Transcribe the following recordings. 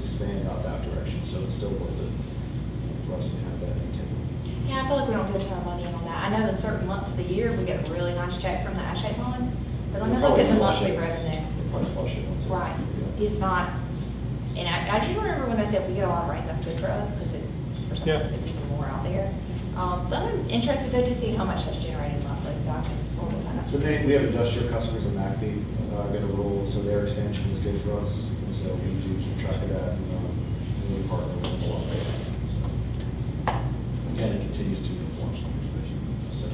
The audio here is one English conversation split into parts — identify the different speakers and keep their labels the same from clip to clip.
Speaker 1: expand out that direction, so it's still worth it for us to have that intent.
Speaker 2: Yeah, I feel like we don't put a ton of money in on that. I know in certain months of the year, we get a really nice check from the ASHA bond, but let me look at the monthly revenue.
Speaker 1: We'll Probably flush it once. a-
Speaker 2: Right,
Speaker 1: Yeah.
Speaker 2: it's not, and I, I just remember when they said we get a lot of rain, that's good for us, because it, for some,
Speaker 3: Yeah.
Speaker 2: it's even more out there. Um, but I'm interested though to see how much that's generated monthly, so I can, we'll find out.
Speaker 1: So we, we have industrial customers in Macby, uh, get a rule, so their expansion is good for us, and so we do keep track of that, and, um, and we partner with them a lot. so. Again, it continues to inform some information, so.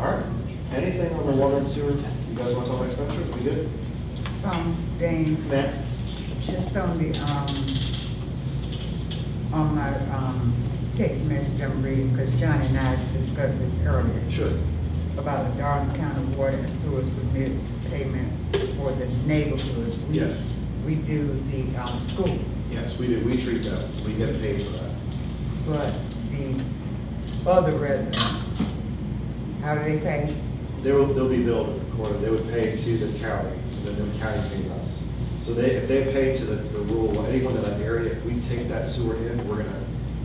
Speaker 1: All right, anything on the water and sewer, you guys want to talk about expenditures, we good?
Speaker 4: Something
Speaker 1: Matt?
Speaker 4: just on the, um, on my, um, text message I'm reading, because Johnny and I discussed this earlier,
Speaker 1: Sure.
Speaker 4: about the Darden County Water and Sewer submits payment for the neighborhood. We-
Speaker 5: Yes.
Speaker 4: We do the, um, school,
Speaker 5: Yes, we do, we treat that, we get paid for that.
Speaker 4: but the other residents, how do they pay?
Speaker 5: They will, they'll be billed and recorded, they would pay to the county, and then the county pays us. So they, if they pay to the, the rural, anyone in that area, if we take that sewer in, we're gonna,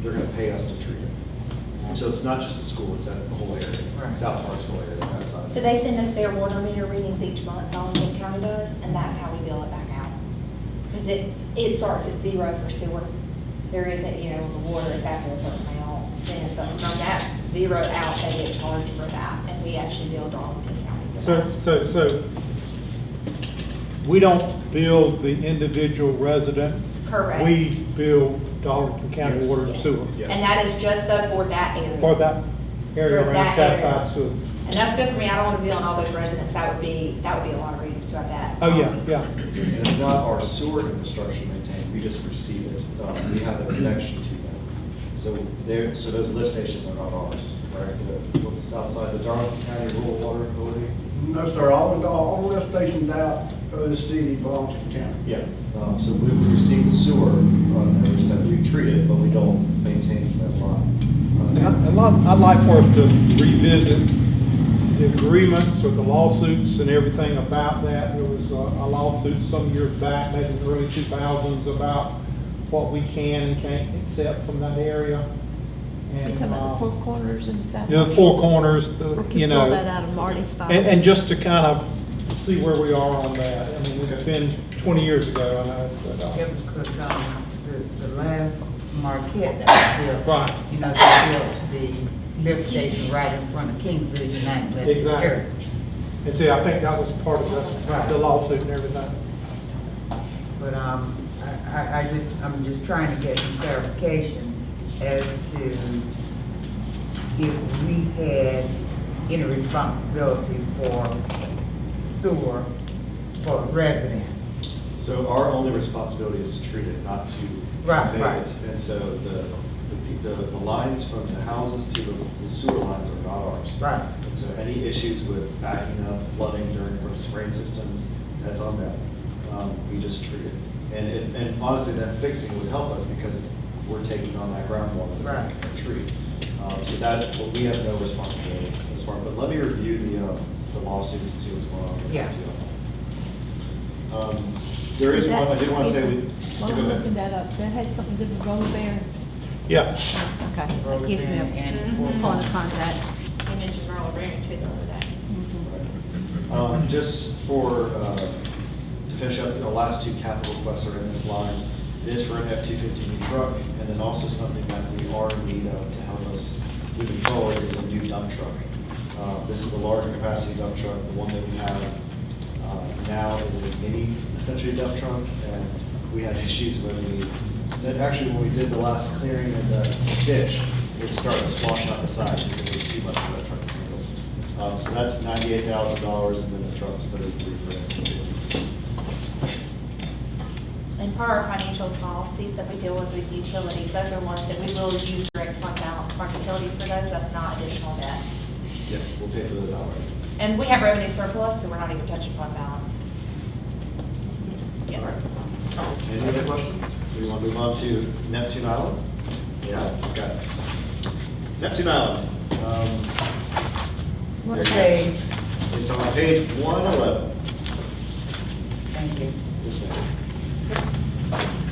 Speaker 5: they're gonna pay us to treat it. So it's not just the school, it's that whole area,
Speaker 4: Right.
Speaker 5: South Park's whole area, that side.
Speaker 2: So they send us their water meter readings each month, Allen County does, and that's how we bill it back out. Because it, it starts at zero for sewer. There isn't, you know, the water is after a certain amount, then, but from that zero out, they get charged for that, and we actually bill Darlington County. for
Speaker 3: So,
Speaker 2: that.
Speaker 3: so, so, we don't bill the individual resident.
Speaker 2: Correct.
Speaker 3: We bill Darlington County
Speaker 5: Yes.
Speaker 3: Water and
Speaker 2: Yes.
Speaker 3: Sewer
Speaker 5: Yes.
Speaker 2: And that is just though for that area.
Speaker 3: for that area
Speaker 2: For
Speaker 3: around
Speaker 2: that area.
Speaker 3: Southside Sewer.
Speaker 2: And that's good for me, I don't want to be on all those residents, that would be, that would be a lot of readings to have that.
Speaker 3: Oh, yeah, yeah.
Speaker 1: And it's not our sewer infrastructure maintained, we just receive it, um, we have a connection to them. So there, so those lift stations are not ours, right? The, what's the south side, the Darlington County Rural Water Authority?
Speaker 6: No, sir, all, all lift stations out of the city belong to the county.
Speaker 1: Yeah. Um, so we receive the sewer, uh, and we said we treat it, but we don't maintain that line.
Speaker 5: Um,
Speaker 1: Uh,
Speaker 3: I'd like, I'd like for us to revisit the agreements or the lawsuits and everything about that. There was a a lawsuit some years back, maybe in the early two thousands, about what we can and can't accept from that area.
Speaker 7: You're
Speaker 3: And,
Speaker 7: talking
Speaker 3: uh,
Speaker 7: about the four corners and stuff?
Speaker 3: you know, four corners, the-
Speaker 7: We can
Speaker 3: you
Speaker 7: pull
Speaker 3: know.
Speaker 7: that out of Marty's files.
Speaker 3: And, and just to kind of see where we are on that. I mean, it's been twenty years ago, I know, but,
Speaker 4: Yeah,
Speaker 3: uh,
Speaker 4: because, um, the, the last Marquette that was built.
Speaker 3: Right.
Speaker 4: You know, they built the lift station right in front of Kingsville United Methodist
Speaker 3: Exactly.
Speaker 4: Church.
Speaker 3: and see, I think that was part of the- the lawsuit and everything.
Speaker 4: But, um, I, I, I just, I'm just trying to get some clarification as to if we had any responsibility for sewer for residents.
Speaker 5: So our only responsibility is to treat it, not to
Speaker 4: Right,
Speaker 5: convey
Speaker 4: right.
Speaker 5: it. And so the, the pe- the, the lines from the houses to the the sewer lines are not ours.
Speaker 4: Right.
Speaker 5: And so any issues with backing up, flooding during the spring systems, that's on them. Um, we just treat it. And it, and honestly, that fixing would help us because we're taking on that groundwater.
Speaker 4: Right.
Speaker 5: and Treat. Um, so that, well, we have no responsibility as far, but let me review the, uh, the lawsuits and see what's going on. with that
Speaker 4: Yeah.
Speaker 5: deal. Um, There is one, I did want to say, we-
Speaker 7: While
Speaker 5: go
Speaker 7: I'm
Speaker 5: ahead.
Speaker 7: looking that up, that had something to do with Roller Bear.
Speaker 3: Yeah.
Speaker 7: Okay, that gives me a
Speaker 2: Mhm.
Speaker 7: point of contact.
Speaker 2: You mentioned rural agreement too, the other day.
Speaker 7: Mm-hmm.
Speaker 5: Um, Just for, uh, to finish up, the last two capital requests are in this line. It is for an F-250 truck, and then also something that we are in need of to help us moving forward is a new dump truck. Uh, This is a larger capacity dump truck, the one that we have uh, now is a mini, essentially dump truck, and we had issues when we, so actually, when we did the last clearing of the ditch, it started sloshing out the side because there was too much for that truck to handle. Um, so that's ninety-eight thousand dollars, and then the truck's thirty-three grand.
Speaker 2: And per our financial policies that we deal with with utilities, those are ones that we will use direct fund balance from utilities for those, that's not additional debt.
Speaker 5: Yeah, we'll pay for those outright.
Speaker 2: And we have revenue surplus, so we're not even touching fund balance. Yes.
Speaker 5: Any other questions? Do you want to move on to Neptune Island? Yeah, okay. Neptune Island, um,
Speaker 7: What
Speaker 5: Very
Speaker 7: day?
Speaker 4: Okay,
Speaker 5: it's on page one eleven.
Speaker 4: thank you.
Speaker 5: Yes, ma'am.